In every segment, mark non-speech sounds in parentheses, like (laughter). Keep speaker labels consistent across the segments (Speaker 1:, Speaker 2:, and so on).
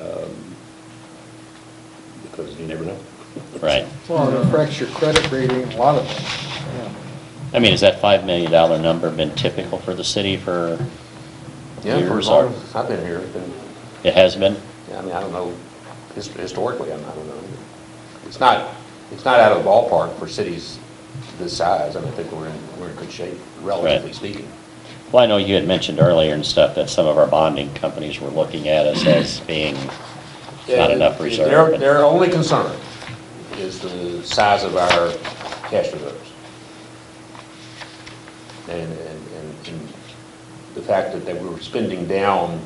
Speaker 1: Um, because you never know.
Speaker 2: right?
Speaker 3: Well, it affects your credit rating, a lot of things.
Speaker 2: I mean, has that five million dollar number been typical for the city for
Speaker 1: Yeah, for as
Speaker 2: years?
Speaker 1: long
Speaker 2: or-
Speaker 1: as I've been here, it's been-
Speaker 2: It has been?
Speaker 1: yeah, I mean, I don't know, his- historically, I don't know. It's not, it's not out of the ballpark for cities this size. I mean, I think we're in, we're in good shape, relatively
Speaker 2: Right.
Speaker 1: speaking.
Speaker 2: Well, I know you had mentioned earlier and stuff that some of our bonding companies were looking at us as being not enough
Speaker 1: Their-
Speaker 2: reserve. but-
Speaker 1: Their only concern is the size of our cash reserves. And, and, and- and the fact that, that we were spending down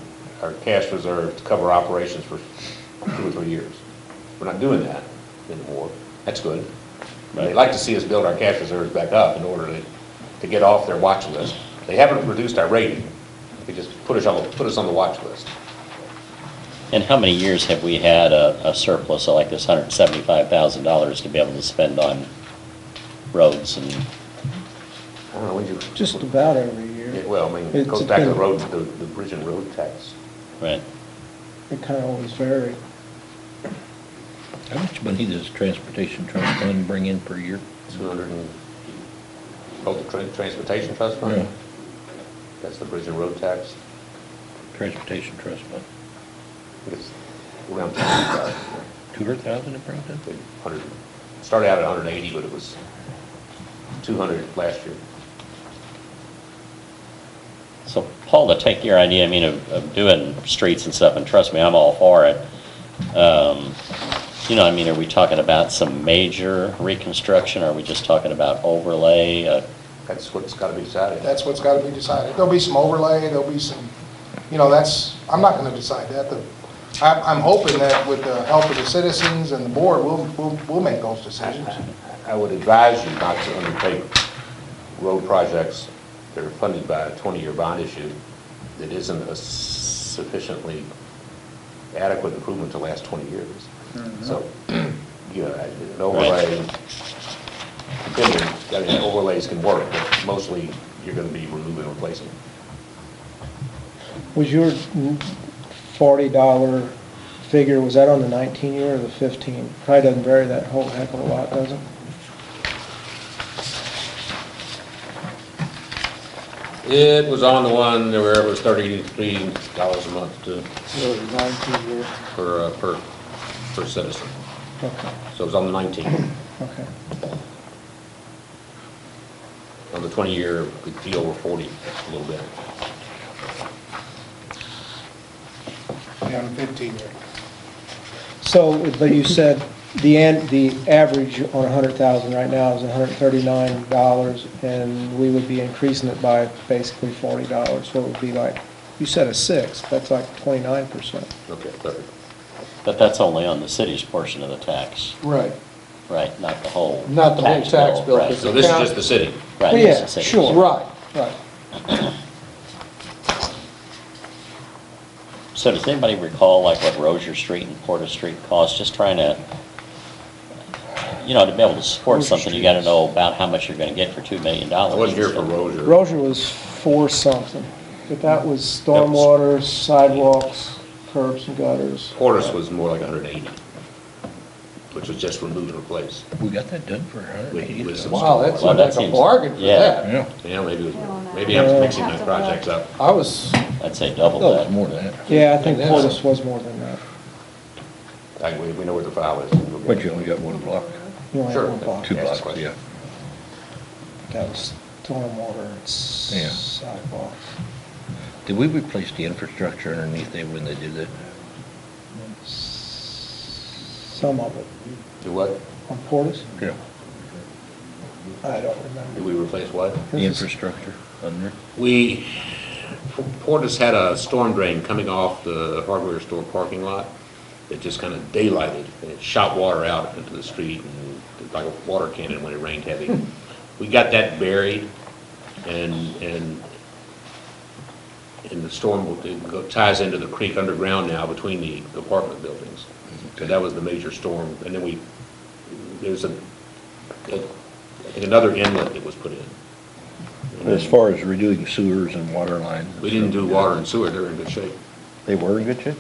Speaker 1: our cash reserve to cover operations for two or three years. We're not doing that anymore, that's good. And They
Speaker 2: Right.
Speaker 1: like to see us build our cash reserves back up in order to, to get off their watch list. They haven't reduced our rating, they just put us on, put us on the watch list.
Speaker 2: And how many years have we had a a surplus of like this hundred and seventy-five thousand dollars to be able to spend on roads and,
Speaker 1: I don't know, when you.
Speaker 3: Just about every
Speaker 1: Yeah,
Speaker 3: year.
Speaker 1: Well, I mean, it
Speaker 3: It's
Speaker 1: goes back to the
Speaker 3: been-
Speaker 1: road, the, the bridge and road tax.
Speaker 2: right?
Speaker 3: It kind of always varied.
Speaker 4: How much money does transportation trust fund bring in per year?
Speaker 1: Two hundred and, oh, the tran- transportation trust
Speaker 4: Yeah.
Speaker 1: fund? That's the bridge and road tax.
Speaker 4: Transportation trust fund,
Speaker 1: I think It's around two hundred
Speaker 4: two hundred thousand it brings in?
Speaker 1: thousand, hundred, started out at hundred and eighty, but it was two hundred last year.
Speaker 2: So Paul, to take your idea, I mean, of, of doing streets and stuff, and trust me, I'm all for it. Um, You know, I mean, are we talking about some major reconstruction? Are we just talking about overlay? Uh,
Speaker 1: That's what's gotta be decided.
Speaker 5: That's what's got to be decided. There'll be some overlay, there'll be some, you know, that's, I'm not going to decide that. The- I'm, I'm hoping that with the help of the citizens and the board, we'll, we'll, we'll make those decisions.
Speaker 1: I would advise you not to undertake road projects that are funded by a 20-year bond issue that isn't a sufficiently adequate improvement to last 20 years. So, (clears throat) you know, an overlay, depending, I mean, overlays can work, but mostly you're going to be removing and replacing.
Speaker 3: Was your forty dollar figure, was that on the nineteen year or the fifteen? Probably doesn't vary that whole heck of a lot, does it?
Speaker 1: It was on the one where it was $33 a month to,
Speaker 3: Or the nineteen year?
Speaker 1: per, uh, per, per citizen.
Speaker 3: Okay,
Speaker 1: So it was on the 19.
Speaker 3: okay.
Speaker 1: On the 20-year, it'd be over 40 a little bit.
Speaker 5: Yeah, I'm 15 year.
Speaker 3: So, but you said the an, the average on a hundred thousand right now is hundred thirty-nine dollars, and we would be increasing it by basically forty dollars, so it would be like, you said a six, that's like twenty-nine percent.
Speaker 1: Okay, thirty.
Speaker 2: But that's only on the city's portion of the tax,
Speaker 5: Right.
Speaker 2: right? Not the whole.
Speaker 5: Not the whole tax bill,
Speaker 2: right,
Speaker 5: because Oh,
Speaker 1: So this is just the city.
Speaker 2: Right. it's
Speaker 3: Yeah,
Speaker 2: the city's.
Speaker 3: sure. Right, right.
Speaker 2: So does anybody recall like what Rozier Street and Porter Street cost? Just trying to, you know, to be able to support
Speaker 3: Rozier
Speaker 2: something, you gotta know about how much you're gonna get for two million
Speaker 1: I
Speaker 2: dollars.
Speaker 1: wasn't here for Rozier.
Speaker 3: Rozier was four something, but that was stormwater, sidewalks, curbs and gutters.
Speaker 1: Portis was more like hundred and eighty, which was just remove and replace.
Speaker 4: We got that done for a hundred and
Speaker 1: With-
Speaker 4: eighty
Speaker 1: with some-
Speaker 4: thousand.
Speaker 6: Wow, that's
Speaker 2: Well, that
Speaker 6: like a
Speaker 2: seems-
Speaker 6: bargain for
Speaker 2: yeah.
Speaker 6: that.
Speaker 4: Yeah,
Speaker 1: Yeah, maybe it was, maybe I'm mixing my projects up.
Speaker 6: I was,
Speaker 2: I'd say double
Speaker 4: no, it's
Speaker 2: that.
Speaker 4: more than that.
Speaker 3: Yeah, I think
Speaker 6: Yeah.
Speaker 3: Portis was more than that.
Speaker 1: I, we, we know where the file is. We'll get
Speaker 4: But
Speaker 1: it.
Speaker 4: you only got one block,
Speaker 3: You only had
Speaker 1: Sure.
Speaker 3: one block.
Speaker 4: two
Speaker 1: Yes,
Speaker 4: blocks,
Speaker 1: question.
Speaker 4: yeah.
Speaker 3: That was stormwater and s-
Speaker 4: Yeah.
Speaker 3: sidewalks.
Speaker 4: Did we replace the infrastructure underneath there when they did that?
Speaker 3: Some of it.
Speaker 1: Do what?
Speaker 3: On Portis?
Speaker 4: Yeah.
Speaker 3: I don't
Speaker 1: Did
Speaker 3: remember.
Speaker 1: we replace what?
Speaker 4: The infrastructure under?
Speaker 1: We, Portis had a storm drain coming off the hardware store parking lot that just kind of daylighted, and it shot water out into the street, and it- like a water cannon when it rained heavy.
Speaker 4: Hmm.
Speaker 1: We got that buried, and, and, and the storm will- it go- ties into the creek underground now between the apartment buildings. So that was the major storm, and then we, there's a, a- I think another inlet that was put in.
Speaker 4: As far as redoing sewers and water lines. and
Speaker 1: We didn't do
Speaker 4: stuff like that,
Speaker 1: water and sewer, they're in good shape.
Speaker 4: They were in good shape?